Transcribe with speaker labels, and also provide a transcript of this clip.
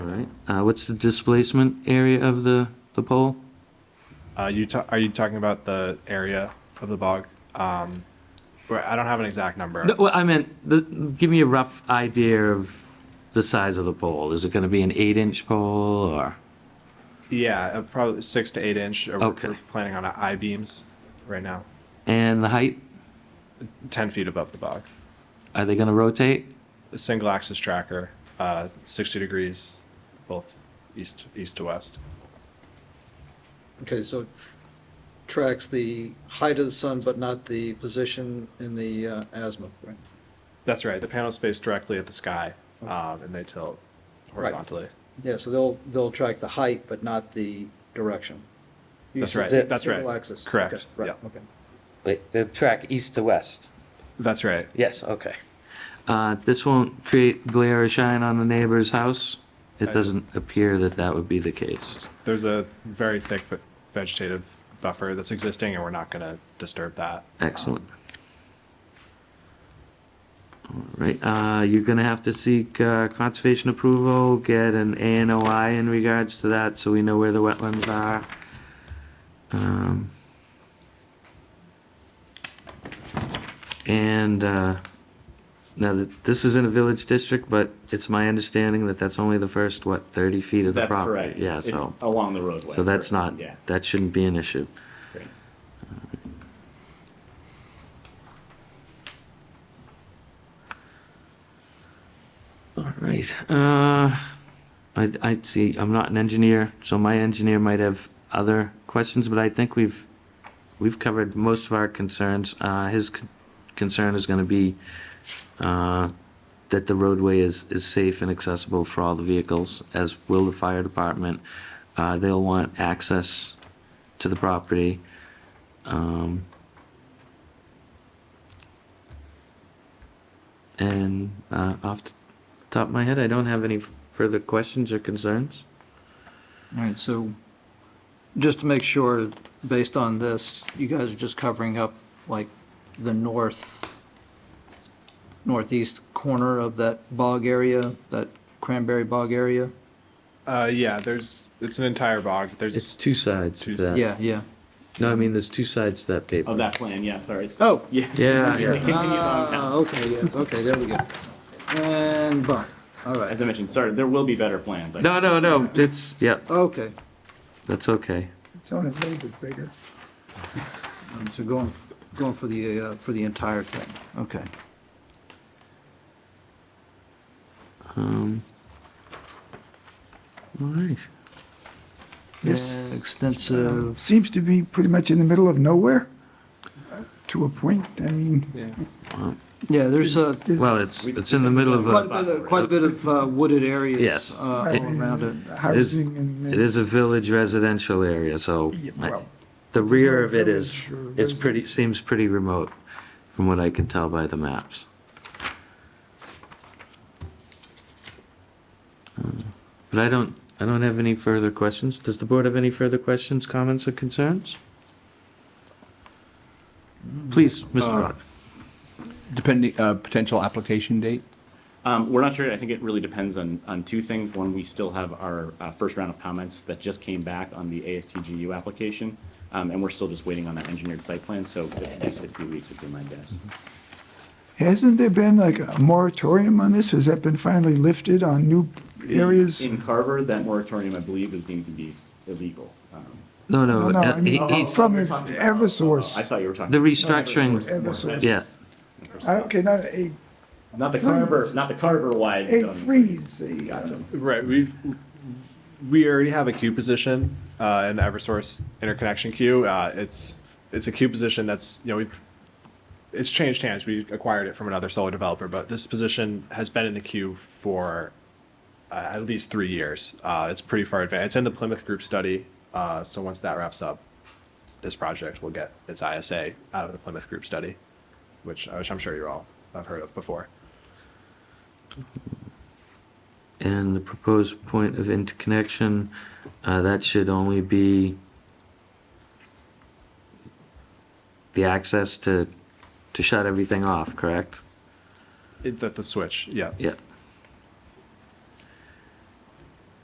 Speaker 1: Uh, what's the displacement area of the, the pole?
Speaker 2: Uh, you ta- are you talking about the area of the bog? Um, where I don't have an exact number.
Speaker 1: No, well, I meant, the, give me a rough idea of the size of the pole. Is it going to be an eight inch pole or?
Speaker 2: Yeah, uh, probably six to eight inch. Uh, we're-
Speaker 1: Okay.
Speaker 2: We're planning on I beams right now,
Speaker 1: And the height?
Speaker 2: ten feet above the bog.
Speaker 1: Are they going to rotate?
Speaker 2: A single axis tracker, uh, sixty degrees, both east east to west.
Speaker 3: Okay, so it tracks the height of the sun, but not the position in the uh, azimuth, right?
Speaker 2: That's right. The panels face directly at the sky, um, and they tilt horizontally.
Speaker 3: Yeah, so they'll, they'll track the height, but not the direction. You
Speaker 2: That's
Speaker 3: said
Speaker 2: right,
Speaker 3: si-
Speaker 2: that's right.
Speaker 3: Single axis.
Speaker 2: Correct,
Speaker 3: Okay, Right,
Speaker 2: yeah.
Speaker 3: okay.
Speaker 4: Wait, the track east to west.
Speaker 2: That's right.
Speaker 4: Yes, okay.
Speaker 1: Uh, this won't create glare or shine on the neighbor's house? It
Speaker 2: I-
Speaker 1: doesn't appear that that would be the case.
Speaker 2: There's a very thick ve- vegetative buffer that's existing, and we're not going to disturb that.
Speaker 1: Excellent. All right, uh, you're gonna have to seek, uh, conservation approval, get an ANOI in regards to that, so we know where the wetlands are. Um, And, uh, now that, this is in a village district, but it's my understanding that that's only the first, what, thirty feet of the
Speaker 5: That's
Speaker 1: property?
Speaker 5: correct.
Speaker 1: Yeah,
Speaker 5: It's-
Speaker 1: so,
Speaker 5: it's Along the roadway.
Speaker 1: so that's
Speaker 5: correct.
Speaker 1: not,
Speaker 5: Yeah.
Speaker 1: that shouldn't be an issue.
Speaker 5: great.
Speaker 1: All right. Uh, I, I see, I'm not an engineer, so my engineer might have other questions, but I think we've, we've covered most of our concerns. Uh, his con- concern is gonna be, uh, that the roadway is, is safe and accessible for all the vehicles, as will the fire department. Uh, they'll want access to the property. Um, and, uh, off the top of my head, I don't have any further questions or concerns.
Speaker 3: All right, so just to make sure, based on this, you guys are just covering up like the north, northeast corner of that bog area, that cranberry bog area?
Speaker 2: Uh, yeah, there's it's an entire bog. There's
Speaker 1: It's two sides to
Speaker 2: Two-
Speaker 1: that.
Speaker 3: Yeah, yeah.
Speaker 1: No, I mean, there's two sides to that paper.
Speaker 5: Oh, that plan, yeah, sorry. It's-
Speaker 3: Oh.
Speaker 5: Yeah.
Speaker 1: Yeah,
Speaker 5: It
Speaker 1: yeah.
Speaker 5: continues on
Speaker 3: Ah,
Speaker 5: down.
Speaker 3: Okay, yes, okay, there we go. And bond, all right,
Speaker 5: As I mentioned, sorry, there will be better plans. I-
Speaker 1: No, no, no, it's, yeah,
Speaker 3: okay.
Speaker 1: that's okay.
Speaker 6: It's only a little bit bigger.
Speaker 3: Um, So going, going for the, uh, for the entire thing, okay.
Speaker 1: Um, all right.
Speaker 6: This
Speaker 3: Yeah, Extensive,
Speaker 6: seems to be pretty much in the middle of nowhere, uh, to a point, I mean.
Speaker 2: yeah.
Speaker 3: yeah, there's a,
Speaker 6: it's-
Speaker 1: Well, it's, it's in the middle of uh,
Speaker 3: quite a
Speaker 1: a,
Speaker 3: bit of, quite a bit of uh, wooded areas.
Speaker 1: Yes.
Speaker 3: uh,
Speaker 6: I
Speaker 3: All
Speaker 6: mean,
Speaker 3: around it.
Speaker 6: Housing and.
Speaker 1: it is a
Speaker 6: it's-
Speaker 1: village residential area, so
Speaker 6: Yeah,
Speaker 1: I-
Speaker 6: well,
Speaker 1: the
Speaker 6: no
Speaker 1: rear of it is,
Speaker 6: village uh, or
Speaker 1: is pretty, seems pretty remote from what I can tell by the maps. Um, But I don't, I don't have any further questions. Does the board have any further questions, comments, or concerns? Please, Mr. Rock.
Speaker 7: Depending, uh, potential application date?
Speaker 5: Um, we're not sure. I think it really depends on, on two things. One, we still have our uh, first round of comments that just came back on the ASTGU application. Um, and we're still just waiting on that engineered site plan. So at least a few weeks would be my guess.
Speaker 1: Mm-hmm.
Speaker 6: Hasn't there been like a moratorium on this? Has that been finally lifted on new areas?
Speaker 5: In Carver, that moratorium, I believe, is deemed to be illegal. Um,
Speaker 1: No, no,
Speaker 6: No, no,
Speaker 1: uh,
Speaker 6: I
Speaker 1: he-
Speaker 6: mean,
Speaker 1: he's,
Speaker 6: from
Speaker 5: We're talking about- I
Speaker 6: Eversource,
Speaker 5: thought you were talking.
Speaker 1: the
Speaker 5: about-
Speaker 1: restructuring,
Speaker 6: Eversource.
Speaker 1: yeah,
Speaker 6: I- Uh, Okay, not a,
Speaker 5: Not the Carver, not the Carver wide.
Speaker 6: a freeze, a, uh,
Speaker 5: Gotcha.
Speaker 2: Right. We've we already have a queue position uh, in the EverSource interconnection queue. Uh, it's it's a queue position that's you know we've it's changed hands. We acquired it from another solar developer, but this position has been in the queue for uh, at least three years. Uh, it's pretty far advanced. It's in the Plymouth Group study. Uh, so once that wraps up, this project will get its ISA out of the Plymouth Group study, which, which I'm sure you're all have heard of before.
Speaker 1: and the proposed point of interconnection, uh, that should only be the access to, to shut everything off, correct?
Speaker 2: It's at the switch. Yeah.
Speaker 1: Yeah,